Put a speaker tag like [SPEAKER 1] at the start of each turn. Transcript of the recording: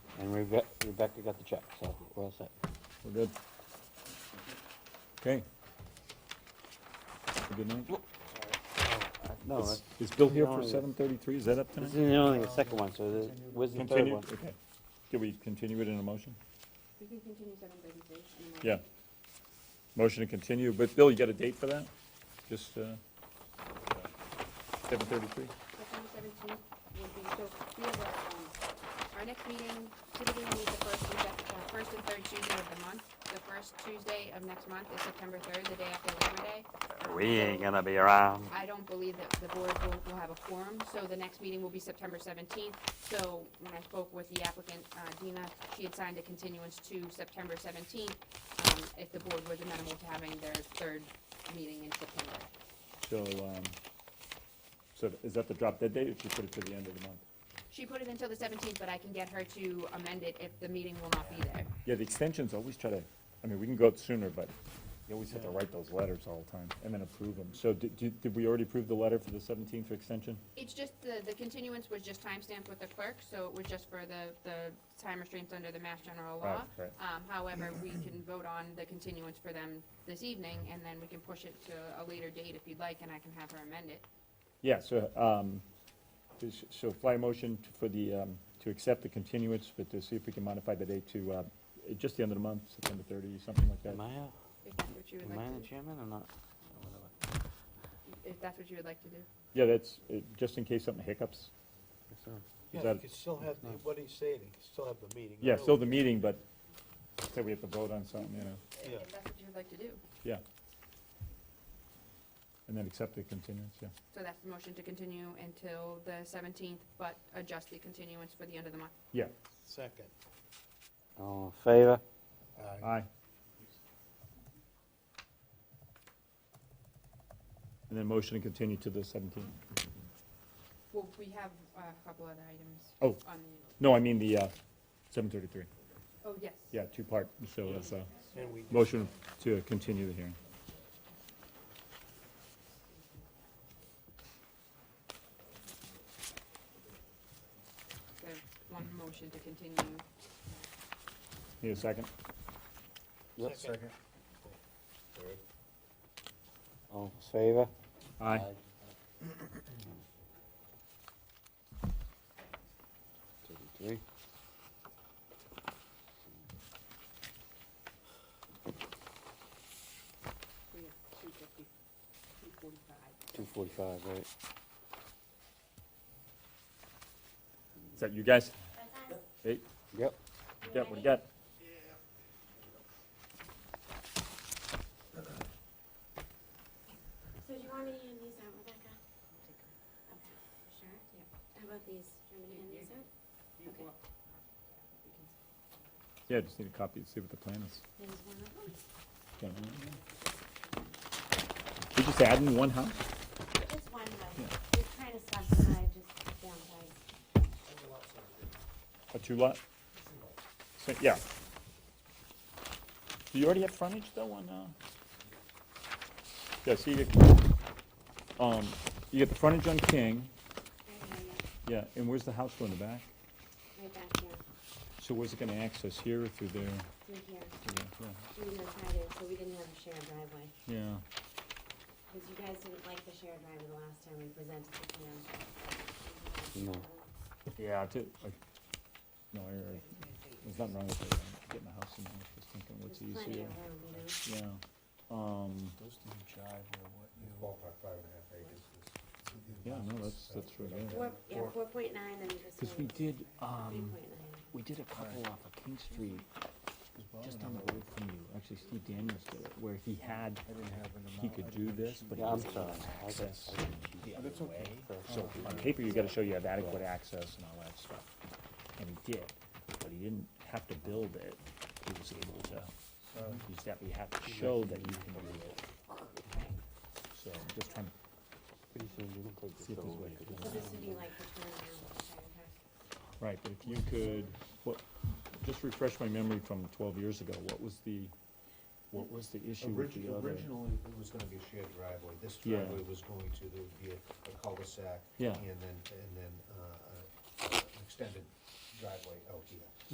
[SPEAKER 1] And Rebe- Rebecca got the check, so we're all set.
[SPEAKER 2] We're good. Okay. Have a Good night.
[SPEAKER 1] No,
[SPEAKER 2] Is-
[SPEAKER 1] that's-
[SPEAKER 2] Is Bill here for
[SPEAKER 1] No, it's-
[SPEAKER 2] seven thirty-three? Is that up
[SPEAKER 1] this
[SPEAKER 2] tonight?
[SPEAKER 1] isn't only the second one, so the- where's the third
[SPEAKER 2] Continue,
[SPEAKER 1] one?
[SPEAKER 2] okay. Can we continue it in a motion?
[SPEAKER 3] You can continue seven thirty-three.
[SPEAKER 2] Yeah. Motion to continue, but Bill, you got a date for that? Just, uh, seven thirty-three?
[SPEAKER 3] September seventeenth would be, so we have, a, um, our next meeting, typically we meet the first and sec- uh, first and third Tuesday of the month. The first Tuesday of next month is September third, the day after Labor Day.
[SPEAKER 1] We ain't gonna be around.
[SPEAKER 3] I don't believe that the board will, will have a quorum, so the next meeting will be September seventeenth. So when I spoke with the applicant, uh, Dina, she had signed a continuance to September seventeenth, um, if the board was amenable to having their third meeting in September.
[SPEAKER 2] So, um, so is that the drop dead date, or should we put it to the end of the month?
[SPEAKER 3] She put it until the seventeenth, but I can get her to amend it if the meeting will not be there.
[SPEAKER 2] Yeah, the extensions always try to, I mean, we can go out sooner, but you always have to write those letters all the time and then approve them. So did, did did we already approve the letter for the seventeenth for extension?
[SPEAKER 3] It's just, the, the continuance was just timestamped with the clerk, so it was just for the, the time restraints under the Mass General Law.
[SPEAKER 2] Right, right.
[SPEAKER 3] Um, however, we can vote on the continuance for them this evening, and then we can push it to a later date if you'd like, and I can have her amend it.
[SPEAKER 2] Yeah, so, um, this- so fly motion to- for the, um, to accept the continuance, but to see if we can modify the date to, uh, just the end of the month, September thirty, something like that.
[SPEAKER 1] Am I, uh,
[SPEAKER 3] If that's what you would
[SPEAKER 1] am I
[SPEAKER 3] like
[SPEAKER 1] the
[SPEAKER 3] to,
[SPEAKER 1] chairman or not?
[SPEAKER 3] if that's what you would like to do.
[SPEAKER 2] Yeah, that's, uh, just in case something hiccups.
[SPEAKER 1] Guess so.
[SPEAKER 2] Is
[SPEAKER 4] Yeah,
[SPEAKER 2] that-
[SPEAKER 4] you could still have, the- what he's saying, you could still have the meeting.
[SPEAKER 2] Yeah, still the
[SPEAKER 4] early.
[SPEAKER 2] meeting, but say we have to vote on something, you know,
[SPEAKER 4] Yeah.
[SPEAKER 3] If that's what you would like to do.
[SPEAKER 2] yeah. And then accept the continuance, yeah.
[SPEAKER 3] So that's the motion to continue until the seventeenth, but adjust the continuance for the end of the month.
[SPEAKER 2] Yeah,
[SPEAKER 4] Second.
[SPEAKER 1] All in favor?
[SPEAKER 4] Aye.
[SPEAKER 2] aye. And then motion to continue to the seventeenth.
[SPEAKER 3] Well, we have uh, a couple other items
[SPEAKER 2] Oh,
[SPEAKER 3] on
[SPEAKER 2] no, I mean the, uh, seven thirty-three.
[SPEAKER 3] the, oh, yes.
[SPEAKER 2] Yeah, two-part, so that's a
[SPEAKER 4] And we.
[SPEAKER 2] motion to continue the hearing.
[SPEAKER 3] There's one motion to continue.
[SPEAKER 2] Need a second?
[SPEAKER 1] Yep.
[SPEAKER 4] Second.
[SPEAKER 1] All in favor?
[SPEAKER 2] Aye.
[SPEAKER 1] Thirty-three.
[SPEAKER 3] We have two fifty, two forty-five.
[SPEAKER 1] Two forty-five, right?
[SPEAKER 2] Is that you guys? Hey,
[SPEAKER 1] Yep.
[SPEAKER 2] yeah, what do you got?
[SPEAKER 5] So do you want me to hand these out, Rebecca? Okay. Sure?
[SPEAKER 3] Yeah.
[SPEAKER 5] How about these? Do you want me to hand these out? Okay.
[SPEAKER 2] Yeah, just need a copy to see what the plan is.
[SPEAKER 5] There's one of them.
[SPEAKER 2] Yeah. Did you say adding one house?
[SPEAKER 5] Just one though. We're trying to subdivide just downsize.
[SPEAKER 2] A two-lot? So, yeah. Do you already have frontage though on, uh? Yeah, so you get, um, you get the frontage on King,
[SPEAKER 5] Right here, yeah.
[SPEAKER 2] yeah, and where's the house going in the back?
[SPEAKER 5] Right back here,
[SPEAKER 2] So where's it gonna access, here or through there?
[SPEAKER 5] through here.
[SPEAKER 2] Through there, yeah.
[SPEAKER 5] We didn't try to, so we didn't have a shared driveway.
[SPEAKER 2] Yeah,
[SPEAKER 5] Because you guys didn't like the shared driveway the last time we presented the plan.
[SPEAKER 1] No.
[SPEAKER 2] yeah, too, like, no, I, I- there's nothing wrong with it, I'm getting a house in there, just thinking
[SPEAKER 5] There's
[SPEAKER 2] what's easier,
[SPEAKER 5] plenty of room, you know?
[SPEAKER 2] yeah, um,
[SPEAKER 6] Those didn't jive with what you. Ballpark five and a half acres.
[SPEAKER 2] yeah, no, that's, that's right, yeah.
[SPEAKER 5] Four, yeah, four point nine and just.
[SPEAKER 6] Cause we
[SPEAKER 5] one-
[SPEAKER 6] did,
[SPEAKER 5] Three
[SPEAKER 6] um,
[SPEAKER 5] point nine.
[SPEAKER 6] we did a couple off of King Street, just down the road from you, actually Steve Daniels did it, where he had, he could do this, but he
[SPEAKER 1] Yeah, I'm
[SPEAKER 6] was
[SPEAKER 1] sorry. I got-
[SPEAKER 6] access.
[SPEAKER 1] I got cheated.
[SPEAKER 2] Oh,
[SPEAKER 6] That's okay.
[SPEAKER 2] So on paper, you gotta show you have adequate access and all that stuff, and he did, but he didn't have to build it, he was able to, he's definitely have to show that he can do it. So, just trying to
[SPEAKER 1] Pretty soon you can take this
[SPEAKER 2] See if there's
[SPEAKER 1] over.
[SPEAKER 2] way
[SPEAKER 1] and
[SPEAKER 2] to
[SPEAKER 1] put
[SPEAKER 5] So
[SPEAKER 1] it
[SPEAKER 5] this would be like the turnaround of the shared house.
[SPEAKER 2] Right, but if you could, what, just refresh my memory from twelve years ago, what was the, what was the issue with the other?
[SPEAKER 7] Originally, it was gonna be a shared driveway, this
[SPEAKER 2] Yeah.
[SPEAKER 7] driveway was going to, there would be a a cul-de-sac.
[SPEAKER 2] Yeah.
[SPEAKER 7] And then, and then, uh, uh, an extended driveway out here.